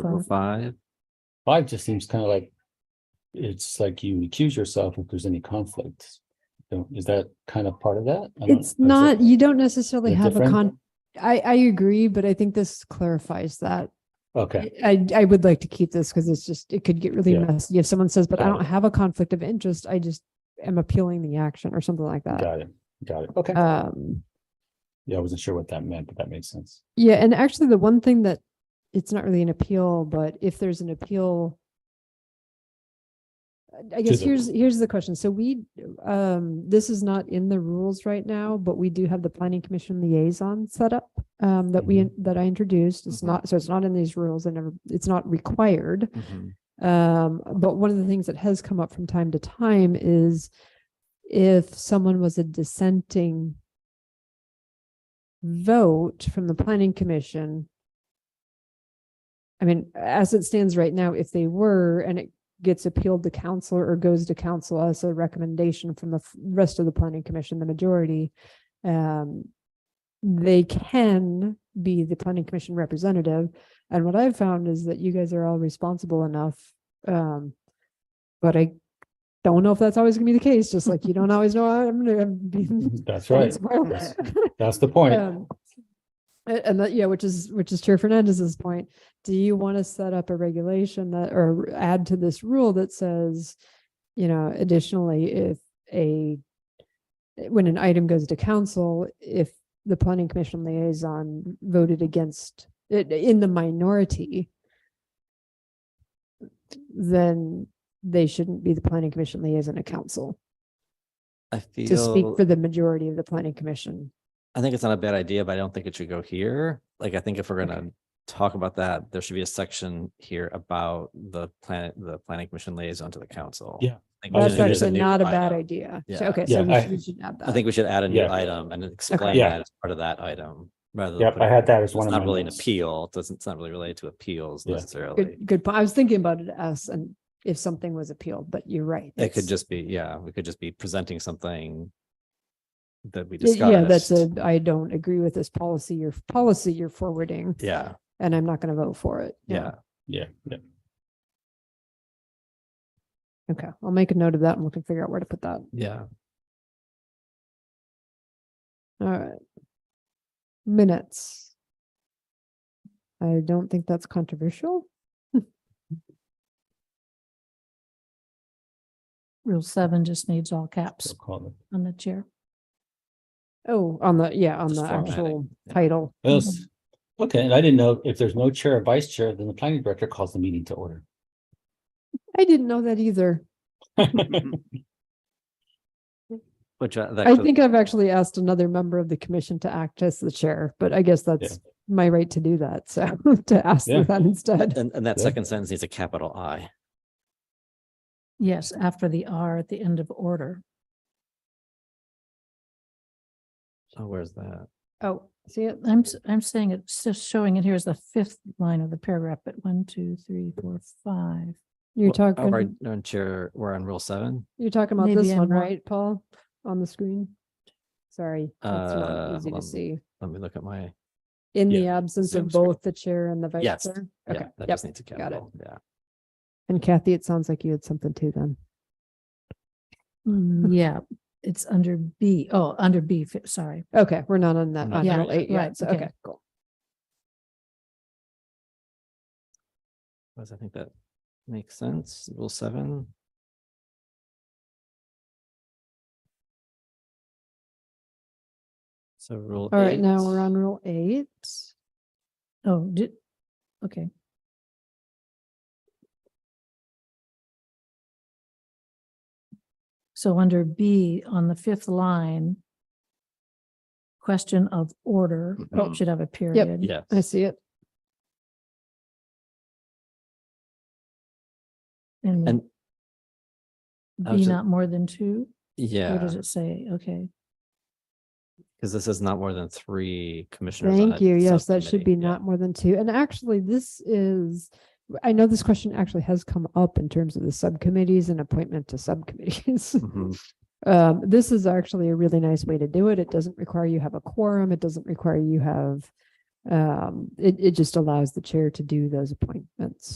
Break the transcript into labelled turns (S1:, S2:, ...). S1: number five.
S2: Five just seems kind of like, it's like you accuse yourself if there's any conflict. Don't- Is that kind of part of that? I don't- is
S3: It's
S2: it-
S3: not, you don't necessarily
S2: is it
S3: have a
S2: different?
S3: con, I, I agree, but I think this clarifies that.
S2: Okay,
S3: I, I would like to keep this because it's just, it could get really
S2: Yeah.
S3: messy if someone says, but I
S2: Got
S3: don't have a conflict of interest. I just am appealing the action or something like that.
S2: got it, got it. Okay,
S3: Um,
S2: yeah, I wasn't sure what that meant, but that makes sense.
S3: yeah, and actually the one thing that, it's not really an appeal, but if there's an appeal. I- I guess
S2: the-
S3: here's, here's the question. So we, um, this is not in the rules right now, but we do have the planning commission liaison set up. Um, that we, that I introduced. It's
S1: Mhm.
S3: not, so it's not in these rules. I never, it's not required.
S1: Mhm.
S3: Um, but one of the things that has come up from time to time is if someone was a dissenting vote from the planning commission. I mean, as it stands right now, if they were, and it gets appealed to council or goes to council as a recommendation from the f- rest of the planning commission, the majority, um, they can be the planning commission representative. And what I've found is that you guys are all responsible enough. Um, but I don't know if that's always gonna be the case, just like you don't always know I'm gonna be.
S2: Mm-hmm, That's right. That's- That's the point.
S3: Um, a- And that, yeah, which is, which is Chair Fernandez's point. Do you want to set up a regulation that, or add to this rule that says, you know, additionally, if a, when an item goes to council, if the planning commission liaison voted against it in the minority, then they shouldn't be the planning commission liaison to council
S1: I
S3: to speak
S1: feel,
S3: for the majority of the planning commission.
S1: I think it's not a bad idea, but I don't think it should go here. Like, I think if we're gonna talk about that, there should be a section here about the planet, the planning commission liaison to the council.
S2: Yeah.
S1: I think we
S3: That's
S1: should introduce
S3: actually
S1: new
S3: not a bad
S1: item.
S3: idea. So,
S1: Yeah.
S3: okay, so
S2: Yeah,
S3: we
S2: I-
S3: should, we should add that.
S1: I think we should add a new
S2: Yeah.
S1: item and explain
S2: Yeah.
S1: that as part of that item rather. than
S2: Yep,
S1: putting
S2: I had
S1: it-
S2: that as one
S1: It's not
S2: of my
S1: really an
S2: notes.
S1: appeal. It Doesn't, it's not really related to appeals
S2: Yeah.
S1: necessarily.
S3: Good, good point. I was thinking about it as, and if something was appealed, but you're right.
S1: It could
S3: that's-
S1: just be, yeah, we could just be presenting something that we
S3: y-
S1: discussed.
S3: Yeah, that's a, I don't agree with this policy, your policy you're forwarding,
S1: Yeah,
S3: and I'm not going to vote for it.
S1: yeah.
S2: Yeah, yeah,
S3: Okay, I'll make a note of that and we can figure out where to put that.
S1: Yeah.
S3: All right. Minutes. I don't think that's controversial.
S4: Rule seven just needs all
S2: we'll
S4: caps
S2: call it.
S4: on the chair.
S3: Oh, on the, yeah, on
S1: Just
S3: the
S1: formatting,
S3: actual
S1: yeah.
S3: title.
S2: Yes. Okay, and I didn't know if there's no chair or vice chair, then the planning director calls the meeting to order.
S3: I didn't know that either.
S1: Which uh, that
S3: I
S1: could-
S3: think I've actually asked another member of the commission to act as the chair, but I guess that's my right to do that. So to ask them
S2: Yeah.
S3: that instead.
S1: And, and that
S2: Yeah.
S1: second sentence needs a capital I.
S4: Yes, after the R at the end of order.
S1: Oh, where's that?
S3: Oh, see it?
S4: I'm, s- I'm saying it's just showing it here as the fifth line of the paragraph, but one, two, three, four, five.
S3: You're
S1: Well, oh, Right,
S3: talking,
S1: no, chair, we're on rule seven.
S3: you're talking about this
S4: Maybe I'm
S3: one,
S4: wrong.
S3: right, Paul? On the screen? Sorry. that's
S1: Uh,
S3: not Easy
S1: hold on.
S3: to see.
S1: Let me look at my,
S3: In the
S2: Yeah,
S3: absence
S1: Zoom
S3: of
S1: screen.
S3: both the chair and the vice
S1: Yes,
S3: chair? Okay,
S1: yeah, that
S3: yep.
S1: just needs a
S3: got it.
S1: capital, yeah.
S3: And Kathy, it sounds like you had something too then.
S4: Mm, Yeah, it's under B. Oh, under B, fi- sorry.
S3: Okay, we're not on that,
S1: Not
S3: on
S4: there
S3: L eight
S4: yet,
S3: yet.
S4: right,
S3: So,
S4: okay.
S3: okay, cool.
S1: Because I think that makes sense, rule seven. So rule.
S3: All right, now
S1: eight.
S3: we're on rule eight.
S4: Oh, did, okay. So under B on the fifth line, question of order
S1: Mhm.
S4: should have a period.
S1: Yes.
S3: I see it.
S4: And
S1: And I was
S4: be
S1: ju-
S4: not more than two? Or
S1: yeah,
S4: does it say? Okay,
S1: because this is not more than three commissioners. on
S3: Thank
S1: a
S3: you. Yes, that should be
S1: subcommittee, yeah.
S3: not more than two. And actually, this is, I know this question actually has come up in terms of the subcommittees and appointment to subcommittees.
S1: Mhm.
S3: Um, this is actually a really nice way to do it. It doesn't require you have a quorum. It doesn't require you have Um, it, it just allows the chair to do those appointments.